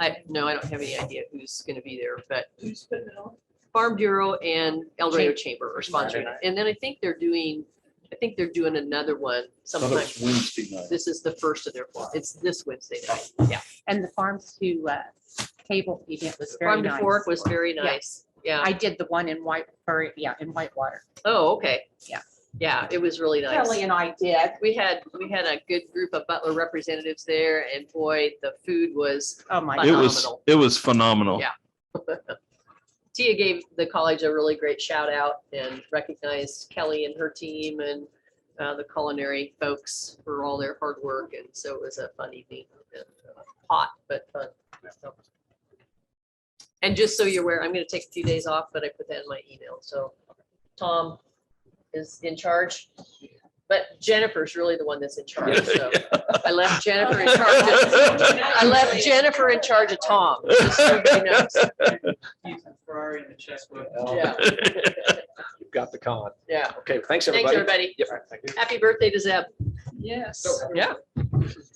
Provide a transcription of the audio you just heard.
I, no, I don't have any idea who's gonna be there, but Who's putting it on? Farm Bureau and El Dorado Chamber. Chamber are sponsoring it. And then I think they're doing, I think they're doing another one Thought it sometime. was Wednesday night. This is the first of their, fall. it's this Wednesday night. And the farms to uh, table event was very Farm to nice. Fork was very Yeah. nice. Yeah. I did the one in White, or yeah, in Whitewater. Oh, okay. Yeah. Yeah, it was really nice. Kelly and I did. We had, we had a good group of Butler representatives there and boy, the food was, Oh, my. But- It God. was, phenomenal. it was phenomenal. Yeah. Tia gave the college a really great shout out and recognized Kelly and her team and uh, the culinary folks for all their hard work. And so it was a fun evening. and, uh, Hot, but fun. So. And just so you're aware, I'm gonna take a few days off, but I put that in my email. So Tom is in charge. But Jennifer's really the one that's in charge. So I left Jennifer in charge. of- I left Jennifer in charge of Tom. just so everybody knows. Ferrari and the checkbook. Yeah, You've got the con. yeah. Okay, thanks, Thanks, everybody. everybody. Yep, thank you. Happy birthday to Zeb. Yes. Yeah.